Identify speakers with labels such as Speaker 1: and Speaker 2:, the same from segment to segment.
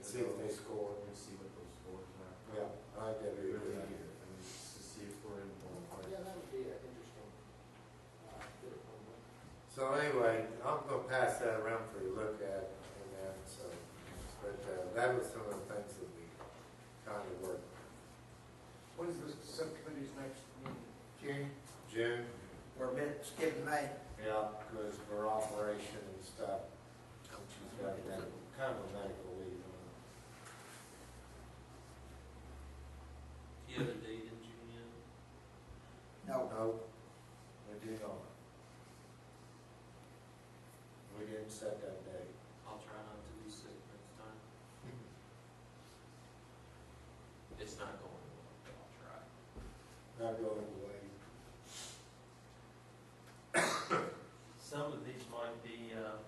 Speaker 1: see if they score.
Speaker 2: We'll see what those scores are.
Speaker 1: Yeah, I get
Speaker 2: Maybe
Speaker 1: it.
Speaker 2: we're not here. I mean, just to see if we're in the ballpark.
Speaker 3: Yeah, that would be an interesting, uh, bit of homework.
Speaker 1: So anyway, I'm gonna pass that around for you to look at and that, so, but uh, that was some of the things that we kind of worked.
Speaker 4: What is the subcommittee's next meeting?
Speaker 1: June? June,
Speaker 4: We're mid, skipping May.
Speaker 1: yeah, because for operation and stuff, she's got a medical, kind of a medical leave on.
Speaker 5: You have a date in June yet?
Speaker 4: No,
Speaker 1: No, we did not. We didn't set that date.
Speaker 5: I'll try not to be sick next time. It's not going well, but I'll try.
Speaker 1: Not going away.
Speaker 5: Some of these might be uh,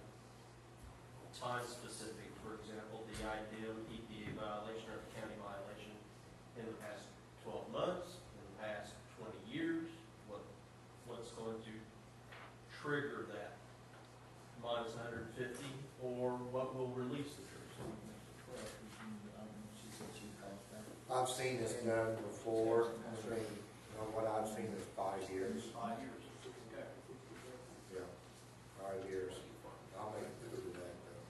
Speaker 5: time-specific, for example, the IDM EPA violation or county violation in the past 12 months, in the past 20 years, what, what's going to trigger that minus 150, or what will release the trigger?
Speaker 3: She said she calls back.
Speaker 1: I've seen this done before, I mean, you know, what I've seen is five years.
Speaker 4: five years.
Speaker 1: Yeah, five years. I'll make a note of that though.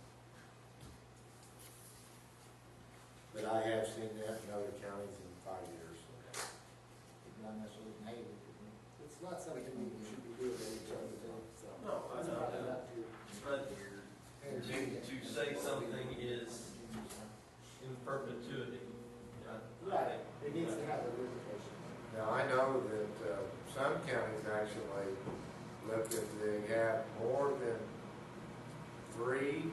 Speaker 1: But I have seen that in other counties in five years.
Speaker 3: It's not something we should be doing any time of day, so.
Speaker 5: No, I
Speaker 3: It's
Speaker 5: know
Speaker 3: probably
Speaker 5: that.
Speaker 3: not due.
Speaker 5: But to, to say something is in perpetuity, I- I
Speaker 3: Right,
Speaker 5: think.
Speaker 3: it needs to have a repercussion.
Speaker 1: Now, I know that, uh, some counties actually look if they have more than three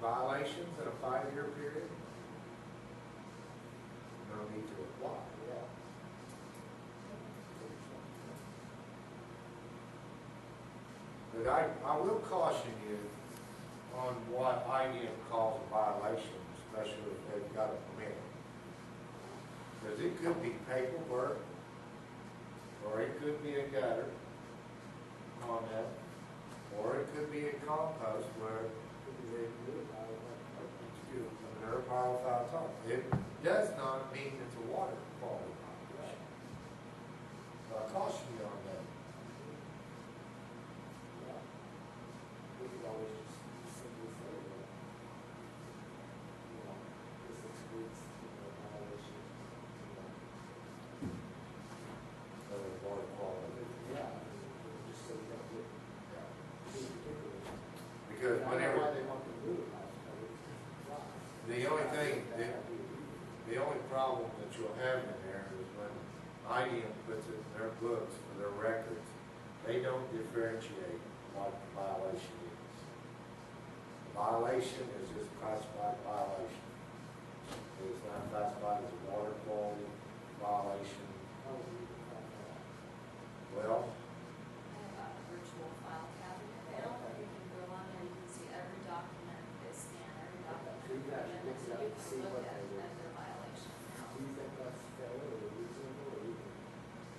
Speaker 1: violations in a five-year period. No need to apply.
Speaker 3: Yeah.
Speaker 1: But I, I will caution you on what IDM calls a violation, especially if they've got a permit. Because it could be paperwork, or it could be a gutter on that, or it could be a compost where
Speaker 3: Because they do it, I would like to-
Speaker 1: Excuse me, an air pile without top. It does not mean it's a water quality violation. So I caution you on that.
Speaker 3: Yeah. We could always just simply say, well, you know, this excludes, you know, violation, you know,
Speaker 1: of the water quality.
Speaker 3: yeah, just so we don't get
Speaker 1: Yeah.
Speaker 3: too particular.
Speaker 1: Because
Speaker 3: I don't know why
Speaker 1: whenever,
Speaker 3: they want to do it, I don't
Speaker 1: the only thing, the,
Speaker 3: know.
Speaker 1: the only problem that you'll have in there is when IDM puts it in their books for their records, they don't differentiate what the violation is. The Violation is just classified violation. It is not classified as a water quality violation. Well,
Speaker 6: I have a virtual file cabinet now, you can go on there, you can see every document, they scan every document.
Speaker 3: So you can actually
Speaker 6: and
Speaker 3: pick it
Speaker 6: so
Speaker 3: up
Speaker 6: you
Speaker 3: and
Speaker 6: can
Speaker 3: see
Speaker 6: look
Speaker 3: what
Speaker 6: at-
Speaker 3: they were-
Speaker 6: at their violation now.
Speaker 3: Do you think that's fair or reasonable or even?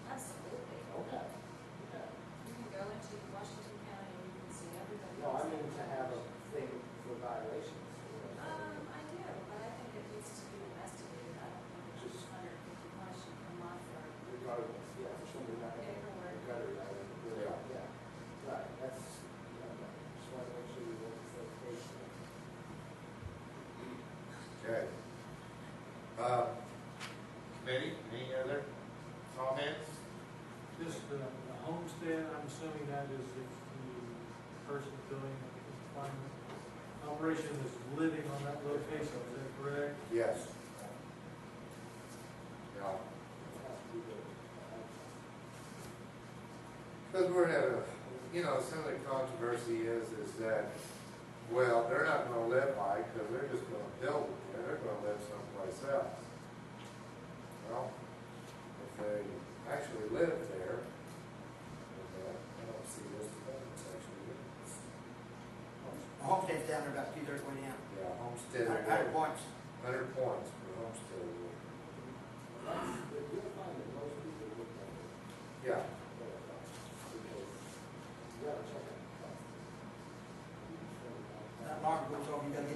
Speaker 6: Absolutely.
Speaker 3: Okay. Yeah.
Speaker 6: You can go into Washington County and you can see everybody.
Speaker 3: No, I
Speaker 6: else's
Speaker 3: mean to have a
Speaker 6: violation.
Speaker 3: thing for violations, you know.
Speaker 6: Um, I do, but I think it needs to be investigated, I don't think it's just under fifty question come off for
Speaker 3: Regardless, yeah, for sure, we're not gonna
Speaker 6: paperwork.
Speaker 3: gutter that, yeah, yeah, right, that's, yeah, just wanna make sure we work this out patiently.
Speaker 1: Okay. Uh, Committee, any other comments?
Speaker 7: Just the the homestead, I'm assuming that is if the person building the climate operation is living on that location, is that correct?
Speaker 1: Yes. Yeah,
Speaker 3: It has to be the, uh,
Speaker 1: because we're at a, you know, some of the controversy is, is that, well, they're not gonna live by because they're just gonna build it, there. they're gonna live someplace else. Well, if they actually live there, then, uh, I don't see this, that's actually,
Speaker 4: Homestead's down there about two thirds way down.
Speaker 1: yeah, homestead.
Speaker 4: Hundred- Hundred points.
Speaker 1: Hundred points for homestead award.
Speaker 3: that's, but you'll find that most people would know it,
Speaker 1: Yeah,
Speaker 3: but, uh, because you gotta check it.
Speaker 4: That alarm goes off, you gotta get